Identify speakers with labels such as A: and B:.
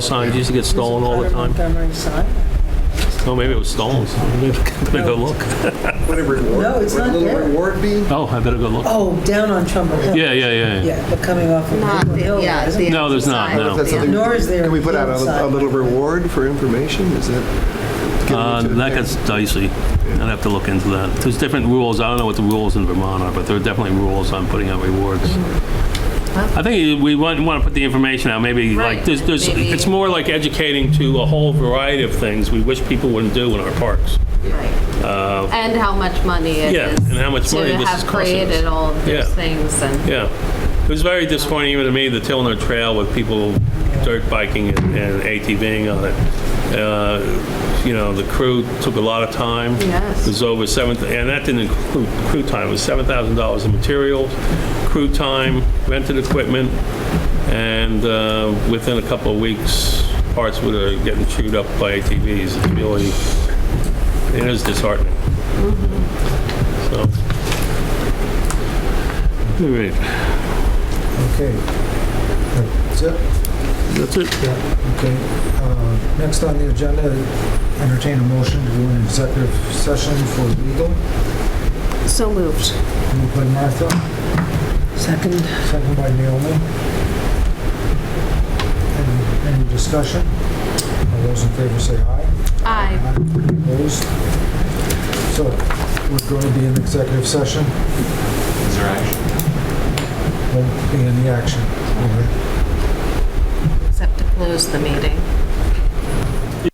A: Signs used to get stolen all the time.
B: Montgomery sign?
A: Oh, maybe it was stolen. Better go look.
C: Whatever reward.
B: No, it's not there.
C: Little reward be?
A: Oh, I better go look.
B: Oh, down on Trumbull Hill.
A: Yeah, yeah, yeah, yeah.
B: Yeah, but coming off of
D: Not
B: Trumbull
D: the-
B: Hill,
D: yeah,
B: isn't it?
D: the
A: No, there's not,
D: sign.
A: no.
C: Is that something-
B: Nor is there
C: Can we put out
B: inside.
C: a- a little reward for information? Is that? giving
A: Uh,
C: it to-
A: That gets dicey. I'd have to look into that. There's different rules. I don't know what the rules in Vermont are, but there are definitely rules on putting out rewards. I think we want, want to put the information out, maybe like,
D: Right,
A: there's, there's,
D: maybe-
A: it's more like educating to a whole variety of things we wish people wouldn't do in our parks.
D: Right. And how much money it is.
A: Uh, Yeah, and how much money this is
D: To have
A: costing us.
D: created all of
A: Yeah.
D: these things and,
A: Yeah. It was very disappointing even to me, the Tilner Trail with people dirt biking and and ATVing on it. Uh, You know, the crew took a lot of time.
D: Yes.
A: It was over seven, and that didn't include crew time, it was $7,000 in materials, crew time, rented equipment, and uh, within a couple of weeks, parts were getting chewed up by ATVs. It's really, it is disheartening. So. All right.
E: Okay. That's it?
A: That's it.
E: Yeah, okay. Uh, Next on the agenda, entertain a motion to go into executive session for legal.
D: so moved.
E: Moved by Martha,
B: Second.
E: second by Naomi. Any- Any discussion? All those in favor say aye.
D: Aye.
E: Opposed? So we're going to be in executive session.
F: Is there action?
E: Won't be any action. All right.
D: Except to close the meeting.